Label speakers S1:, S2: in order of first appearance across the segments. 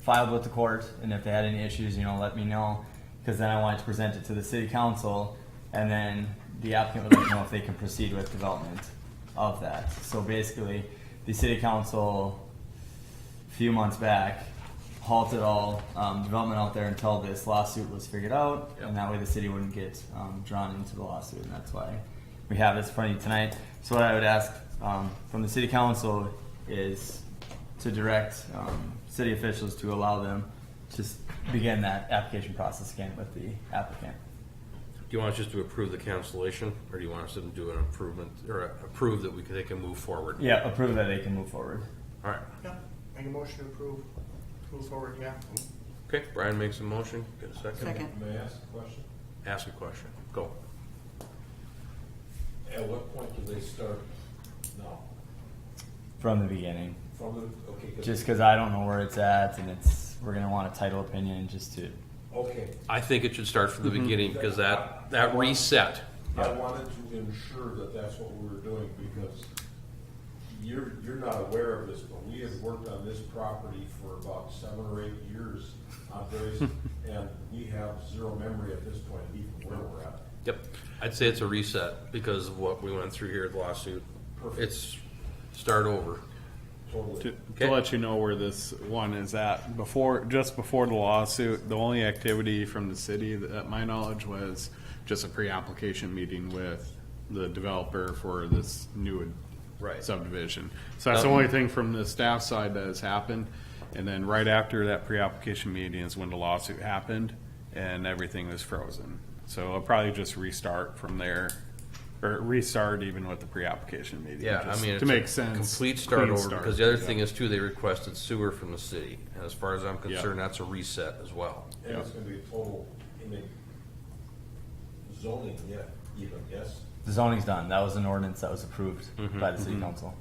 S1: filed with the court, and if they had any issues, you know, let me know, because then I wanted to present it to the city council, and then the applicant would let me know if they can proceed with development of that. So basically, the city council, a few months back, halted all um, development out there until this lawsuit was figured out, and that way the city wouldn't get um, drawn into the lawsuit, and that's why we have this in front of you tonight. So what I would ask um, from the city council is to direct um, city officials to allow them to s- begin that application process again with the applicant.
S2: Do you want us just to approve the cancellation, or do you want us to do an improvement, or approve that we can, they can move forward?
S1: Yeah, approve that they can move forward.
S2: All right,
S3: Yeah, make a motion to approve, move forward, yeah.
S2: okay, Brian makes a motion, get a second.
S4: Second.
S5: May I ask a question?
S2: Ask a question, go.
S5: At what point do they start now?
S1: From the beginning,
S5: From the, okay, 'cause-
S1: just because I don't know where it's at, and it's we're gonna want a title opinion just to
S5: okay.
S2: I think it should start from the
S6: Mm-hmm.
S2: beginning, because that, that reset,
S5: I wanted to ensure that that's what we were doing because you're, you're not aware of this, but we have worked on this property for about seven or eight years on various, and we have zero memory at this point, even where we're at.
S2: yep, I'd say it's a reset, because of what we went through here at the lawsuit.
S5: Perfect.
S2: It's start over.
S6: To,
S5: Totally.
S2: Okay.
S6: to let you know where this one is at, before, just before the lawsuit, the only activity from the city that, at my knowledge, was just a pre-application meeting with the developer for this new
S2: Right.
S6: subdivision. So that's the only thing from the staff side that has happened. And then right after that pre-application meeting is when the lawsuit happened and everything was frozen. So I'll probably just restart from there, or restart even with the pre-application meeting.
S2: Yeah, I
S6: just
S2: mean,
S6: To
S2: it's
S6: make
S2: a
S6: sense.
S2: complete start
S6: clean
S2: over, because the other
S6: Yeah.
S2: thing is too, they requested sewer from the city. And as far as I'm concerned, that's a reset as well.
S5: And it's gonna be a total, I mean, zoning, yeah, even, yes?
S1: the zoning's done. That was an ordinance that was approved
S2: Mm-hmm.
S1: by the city council.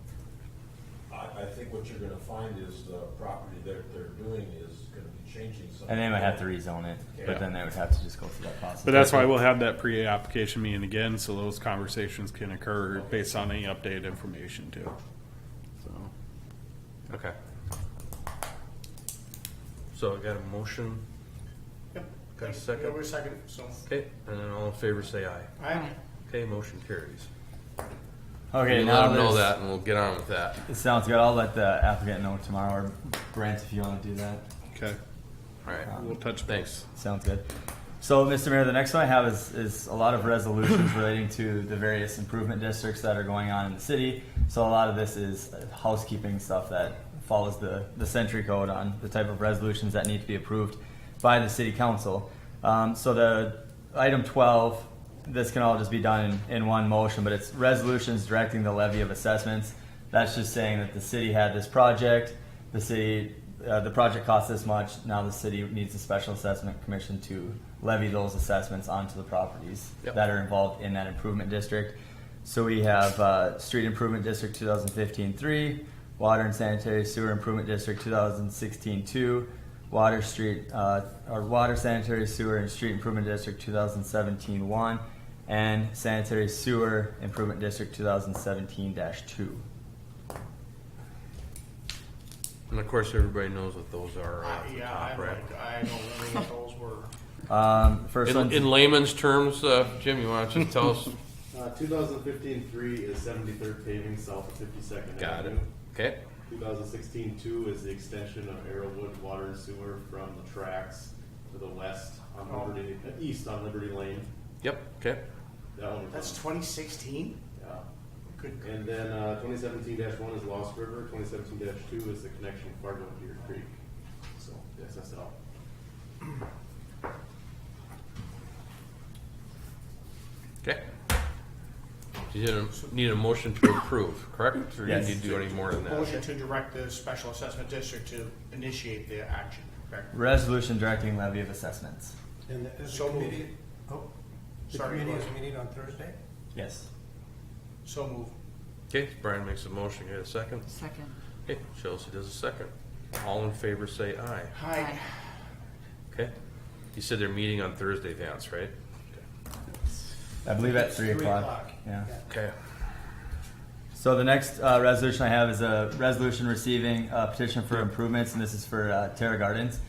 S5: I, I think what you're gonna find is the property that they're doing is gonna be changing something.
S1: And they might have to rezone it, but
S5: Yeah.
S1: then they would have to just go through that process.
S6: But that's why we'll have that pre-application meeting again, so those conversations can occur based on any updated information too. So,
S2: Okay. So I got a motion,
S3: Yep.
S2: Got a second?
S3: Over a second, so.
S2: okay, and then all in favor say aye.
S3: Aye.
S2: Okay, motion carries.
S1: Okay,
S2: You
S1: now
S2: let them know
S1: there's-
S2: that and we'll get on with that.
S1: It sounds good. I'll let the applicant know tomorrow, or Brent, if you want to do that.
S6: okay,
S2: All right,
S1: Uh,
S6: we'll touch
S2: thanks.
S6: base.
S1: Sounds good. So, Mr. Mayor, the next one I have is, is a lot of resolutions relating to the various improvement districts that are going on in the city. So a lot of this is housekeeping stuff that follows the, the century code on the type of resolutions that need to be approved by the city council. Um, so the item twelve, this can all just be done in, in one motion, but it's resolutions directing the levy of assessments. That's just saying that the city had this project, the city, uh, the project cost this much, now the city needs a special assessment commission to levy those assessments onto the properties
S2: Yep.
S1: that are involved in that improvement district. So we have, uh, Street Improvement District 2015-3, Water and Sanitary Sewer Improvement District 2016-2, Water Street, uh, or Water Sanitary Sewer and Street Improvement District 2017-1, and Sanitary Sewer Improvement District two thousand seventeen two.
S2: And of course, everybody knows what those are
S3: I-
S2: off the
S3: Yeah,
S2: top,
S3: I'm
S2: right?
S3: like, I don't remember what those were.
S1: Um, first
S2: In,
S1: one,
S2: in layman's terms, uh, Jim, you want to just tell us?
S7: Uh, 2015-3 is 73rd paving south of 52nd
S2: Got it.
S7: Avenue.
S2: Okay,
S7: 2016-2 is the extension of Arrowwood Water and Sewer from the tracks to the west on
S3: Oh.
S7: Liberty, uh, east on Liberty Lane.
S2: yep, okay,
S7: That one.
S3: That's twenty sixteen?
S7: yeah.
S3: Good. gr-
S7: And then uh, 2017-1 is Lost River. 2017-2 is the connection of Fargo and Deer Creek. So yes, that's all.
S2: okay. You need a, need a motion to approve, correct? Or do you
S1: Yes.
S2: need to do any more than that?
S3: Motion to direct the special assessment district to initiate the action, correct?
S1: resolution directing levy of assessments.
S8: And the- is
S3: So
S8: the
S3: moved.
S8: committee, oh, the
S3: Sorry,
S8: committee
S3: go
S8: is
S3: ahead.
S8: meeting on Thursday?
S1: Yes.
S3: So move.
S2: Okay, Brian makes a motion, get a second.
S4: Second.
S2: Okay, Chelsea does a second. All in favor say aye.
S3: Hi.
S2: Okay. You said they're meeting on Thursday, Vance, right?
S1: I believe at
S8: It's
S1: three o'clock. Yeah.
S2: Okay.
S1: So the next uh, resolution I have is a resolution receiving a petition for improvements, and this is for uh, Terra Gardens.